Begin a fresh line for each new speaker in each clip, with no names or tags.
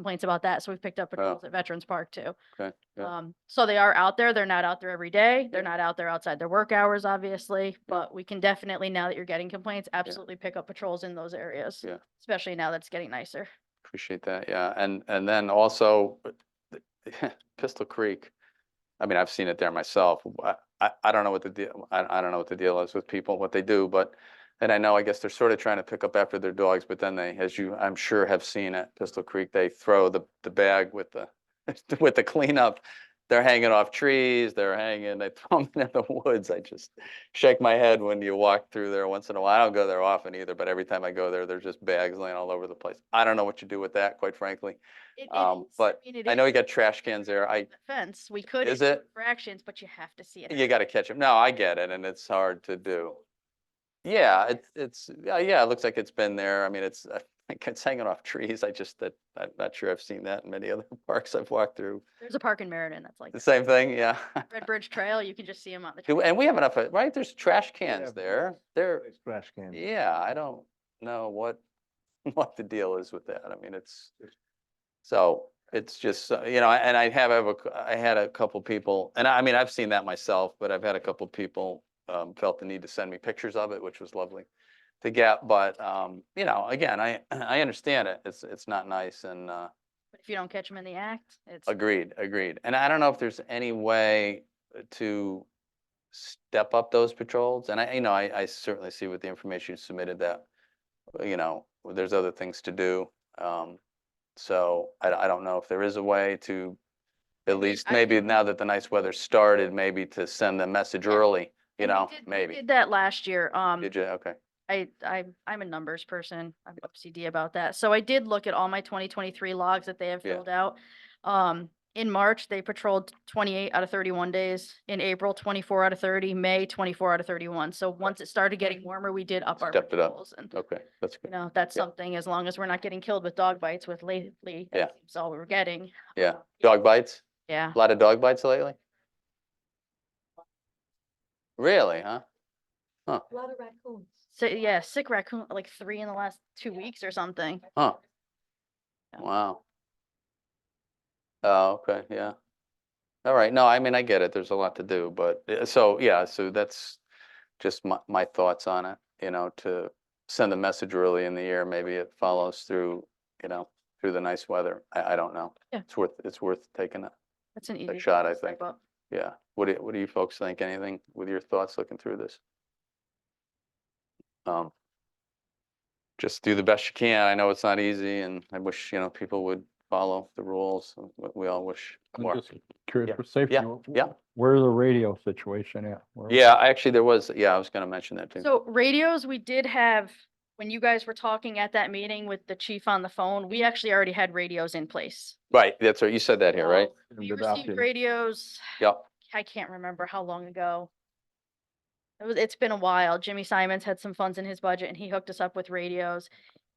complaints about that, so we've picked up
Oh.
patrols at Veterans Park too.
Okay, good.
Um, so they are out there. They're not out there every day. They're not out there outside their work hours, obviously, but we can definitely, now that you're getting complaints, absolutely pick up patrols in those areas.
Yeah.
Especially now that it's getting nicer.
Appreciate that, yeah, and, and then also, but the- Pistol Creek, I mean, I've seen it there myself, w- I, I, I don't know what the deal, I, I don't know what the deal is with people, what they do, but, and I know, I guess they're sort of trying to pick up after their dogs, but then they, as you, I'm sure have seen at Pistol Creek, they throw the, the bag with the, with the cleanup, they're hanging off trees, they're hanging, they throw them in the woods, I just shake my head when you walk through there once in a while. I don't go there often either, but every time I go there, there's just bags laying all over the place. I don't know what you do with that, quite frankly.
It- it
Um,
is.
but
mean, it
I know
is
you got trash cans there. I,
the Fence, we could.
Is
issue
it?
Infractions, but you have to see it.
you gotta catch them. No, I get it, and it's hard to do. Yeah, it's, it's, yeah, yeah, it looks like it's been there. I mean, it's, I think it's hanging off trees. I just, that, I'm not sure I've seen that in many other parks I've walked through.
There's a park in Meriden that's like
The
that.
same thing, yeah.
Red Bridge Trail, you can just see them on the.
Do-
trail.
And we have enough, of- right? There's trash cans
have
there.
lots.
There,
It's Trash can.
Yeah, I don't know what, what the deal is with that. I mean, it's, so it's just, uh, you know, and I have, have a c- I had a couple people, and I I mean, I've seen that myself, but I've had a couple people um, felt the need to send me pictures of it, which was lovely to get. But, um, you know, again, I, I understand it. It's, it's not nice and, uh,
But If you don't catch them in the act, it's.
Agreed, agreed. And I don't know if there's any way uh, to step up those patrols. And I, you know, I, I certainly see with the information you submitted that, you know, there's other things to do. Um, so I, I don't know if there is a way to, at least
I
maybe
think-
now that the nice weather started, maybe to send the message early, you
and we
know,
did- we
maybe.
Did that last year. Um,
Did you, okay,
I, I, I'm a numbers person. I'm OCD about that. So I did look at all my twenty twenty-three logs that they have
Yeah.
filled out. Um, in March, they patrolled twenty-eight out of thirty-one days. In April, twenty-four out of thirty, May, twenty-four out of thirty-one. So once it started getting warmer, we did up our
Stepped it up.
patrols. And,
okay, that's
you
good.
know, that's
Yeah.
something, as long as we're not getting killed with dog bites with lately,
Yeah.
that's all we were getting.
Yeah, dog bites,
Yeah.
a lot of dog bites lately? Really, huh?
A lot of raccoons.
So, yeah, sick raccoon, like three in the last two weeks or something.
Huh.
Yeah.
Wow. Oh, okay, yeah. All right, no, I mean, I get it, there's a lot to do, but, uh, so, yeah, so that's just my, my thoughts on it, you know, to send a message early in the year, maybe it follows through, you know, through the nice weather, I, I don't know.
Yeah.
It's worth, it's worth taking a,
That's an easy.
a shot, I
step
think,
up.
yeah. What do, what do you folks think, anything with your thoughts looking through this? Um, just do the best you can. I know it's not easy and I wish, you know, people would follow the rules. and we- We all wish
I'm
more.
just Curious
Yeah.
for safety.
Yeah.
wh-
Yeah.
Where's the radio situation at? Where-
Yeah, I actually, there was, yeah, I was gonna mention that too.
So radios, we did have, when you guys were talking at that meeting with the chief on the phone, we actually already had radios in place.
Right, that's right. You said that here, right?
So
And
We
the
received
document.
radios,
Yep,
I can't remember how long ago. It was, it's been a while. Jimmy Simons had some funds in his budget and he hooked us up with radios.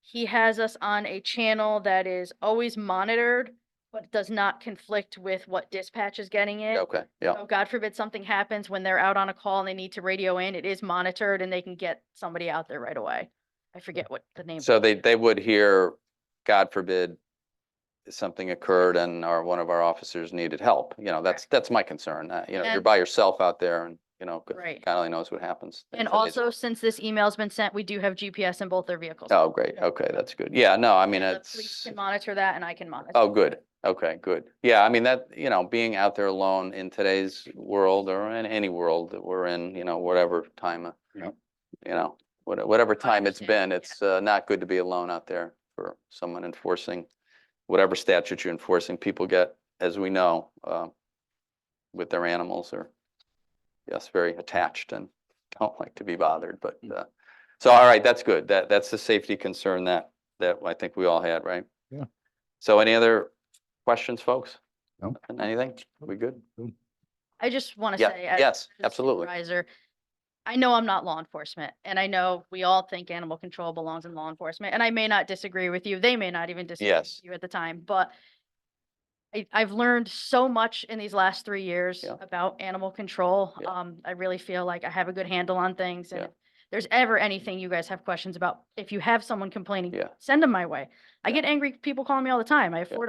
He has us on a channel that is always monitored, but does not conflict with what dispatch is getting it.
okay, yeah,
So Oh, God forbid something happens when they're out on a call and they need to radio in, it is monitored and they can get somebody out there right away. I forget what the name.
So they, they would hear, God forbid, something occurred and our, one of our officers needed help. You know, that's, that's my concern. Uh, You know, you're
And-
by yourself out there and, you know, g-
Right.
God only knows what happens.
And
Things that they-
also, since this email's been sent, we do have GPS in both their vehicles.
Oh, great. Okay, that's good. Yeah, no, I mean,
And the police
it's,
Can monitor that and I can monitor.
oh, good. Okay, good. Yeah, I mean, that, you know, being out there alone in today's world or in any world that we're in, you know, whatever time, uh,
Yeah.
you know, what- whatever time it's
understand,
been,
yeah.
it's uh, not good to be alone out there for someone enforcing whatever statute you're enforcing. People get, as we know, uh, with their animals or, yes, very attached and don't like to be bothered, but,
Mm.
uh, so, all right, that's good. That, that's the safety concern that, that I think we all had, right?
Yeah.
So any other questions, folks?
No.
Nothing? Anything? We good?
I just want to
Yeah,
say. as-
yes,
as a
absolutely.
supervisor, I know I'm not law enforcement and I know we all think animal control belongs in law enforcement and I may not disagree with you. They may not even disagree with
Yes.
you at the time, but I, I've learned so much in these last three years
Yeah.
about animal control.
Yeah.
Um, I really feel like I have a good handle on things and
Yeah.
if there's ever anything you guys have questions about, if you have someone complaining,
Yeah.
send them my way. I
Yeah.
get angry people calling me all the time. I have
Yeah.
four